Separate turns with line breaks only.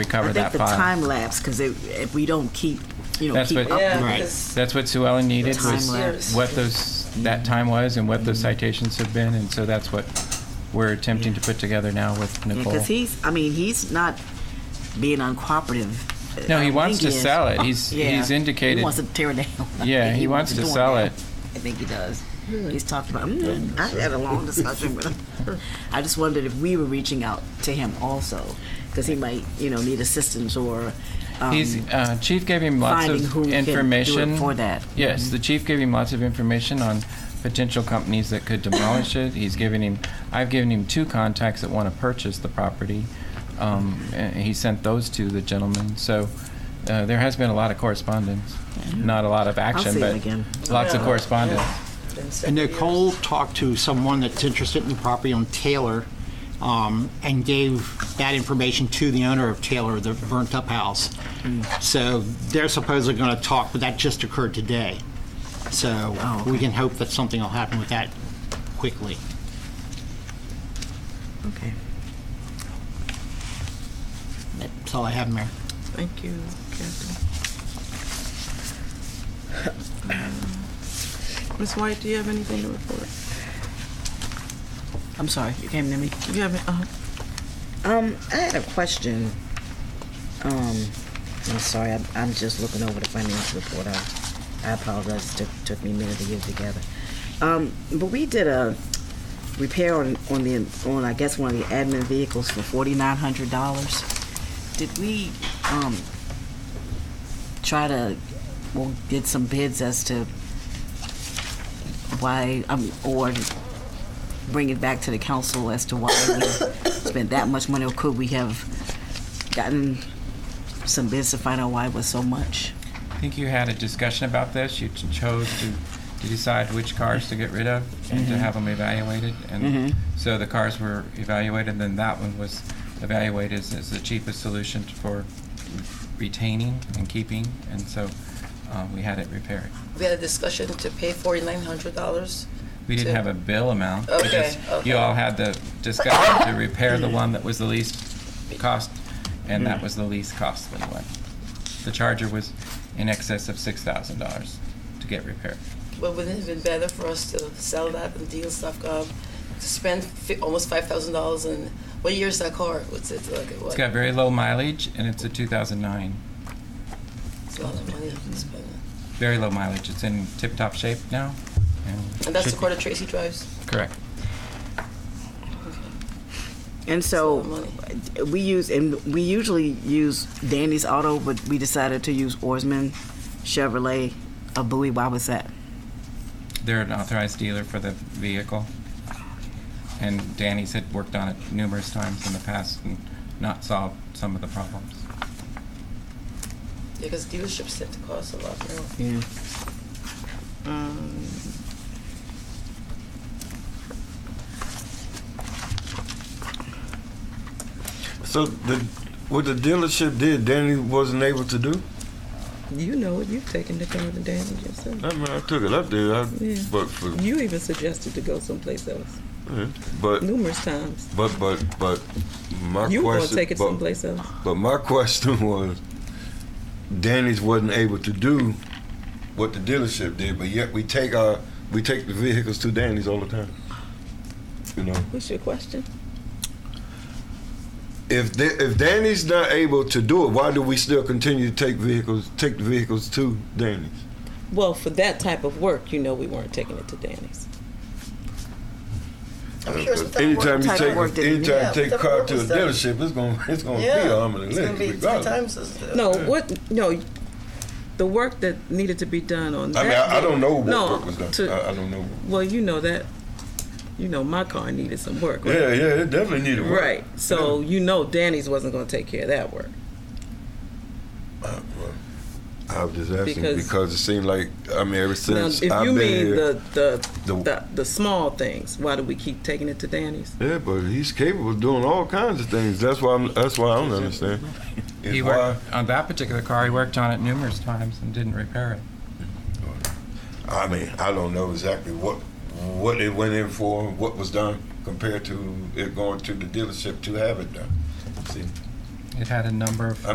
recover
I
that
think the
file.
time lapse, because if we don't keep, you know,
That's
keep
what-
up
Yeah,
with it.
'cause-
That's what Sue Ellen needed,
The
was
time lapse.
what those, that time was and what those citations have been, and so that's what we're attempting to put together now with Nicole.
Because he's, I mean, he's not being uncooperative. uh,
No,
I
he
don't
wants
think
to
is.
sell it. He's-
Yeah.
he's indicated-
He wants to tear it down. I
Yeah,
think
he wants to
do
sell
now.
it.
I think he does. He's talked about, mm, I had a long discussion with him. I just wondered if we were reaching out to him also, because he might, you know, need assistance or, um,
He's, uh, chief gave him lots
finding who
of
can do
information.
it for that.
Yes, the chief gave him lots of information on potential companies that could demolish it. He's given him, I've given him two contacts that want to purchase the property. Um, and he sent those to the gentleman, so, uh, there has been a lot of correspondence. Not a lot of action,
see him
but
again.
lots of
Yeah.
correspondence.
Been
And
several
Nicole
years.
talked to someone that's interested in the property on Taylor um, and gave that information to the owner of Taylor, the burnt-up house. So they're supposedly going to talk, but that just occurred today. So we can hope that something will happen with that quickly.
Okay,
That's all I have, Mayor.
Thank you, Captain. Ms. White, do you have anything to report?
I'm sorry, you came to me.
Do you have, any- uh,
Um, I had a question. Um, I'm sorry, I'm, I'm just looking over the financial report. I, I apologize, it took, took me a minute to get it together. Um, but we did a repair on, on the, on, I guess, one of the admin vehicles for forty-nine hundred dollars. Did we, um, try to, well, get some bids as to why, um, or bring it back to the council as to why we spent that much money, or could we have gotten some bids to find out why it was so much?
I think you had a discussion about this. You ch- chose to, to decide which cars to get rid of and
Mm-hmm.
to have them evaluated. And so the cars were evaluated, then that one was evaluated as, as the cheapest solution for retaining and keeping. And so uh, we had it repaired.
We had a discussion to pay forty-nine hundred dollars.
We didn't have a bill amount. We
Okay,
just-
okay.
You all had the discussion to repair the one that was the least cost, and
Mm-hmm.
that was the least costly one. The Charger was in excess of $6,000 to get repaired.
But wouldn't it have been better for us to sell that and deals.gov, to spend fi- almost five thousand dollars in, what year's that car? What's it, like, what?
It's got very low mileage, and it's a 2009.
It's a lot of money to spend.
Very low mileage. It's in tip-top shape now.
And that's the
should
car that Tracy drives?
be- Correct.
And so, we use, and we usually use Danny's Auto, but we decided to use Oarsman Chevrolet of Bowie. Why was that?
They're an authorized dealer for the vehicle. And Danny's had worked on it numerous times in the past and not solved some of the problems.
Yeah, because dealerships tend to cost a lot now.
Yeah.
um,
So the what the dealership did, Danny wasn't able to do.
you know it, you've taken the car to Danny yourself.
I mean, I took it up there, I,
Yeah.
but for,
You even suggested to go someplace else
but
numerous times.
but but but my
You were
question,
gonna take it
but,
someplace else.
but my question was, Danny's wasn't able to do what the dealership did, but yet we take our we take the vehicles to Danny's all the time. You know,
What's your question?
if they, if Danny's not able to do it, why do we still continue to take vehicles take the vehicles to Danny's?
Well, for that type of work, you know we weren't taking it to Danny's.
Anytime
type
you
of
take,
work that-
a- anytime
Yeah,
you take a
what
car
work
to a
was done?
dealership, it's gonna, it's gonna be a arm and a leg, regardless.
No, what, no, the work that needed to be done on that.
I mean, I, I don't know what
No,
work was done.
to-
I, I don't know.
Well, you know that, you know my car needed some work, right?
Yeah, yeah, it definitely needed work.
Right. So you know Danny's wasn't going to take care of that work.
Uh, I was just asking
Because-
because, it seemed like I mean, ever
Now,
since
if
I've
you
been
mean
here,
the the, the
the-
the small things, why do we keep taking it to Danny's?
yeah, but he's capable of doing all kinds of things. That's why I'm, that's why I don't understand. It's
He
why
worked on that particular car, he worked on it numerous times and didn't repair it.
I mean, I don't know exactly what what it went in for, what was done compared to it going to the dealership to have it done. See,
it had a number of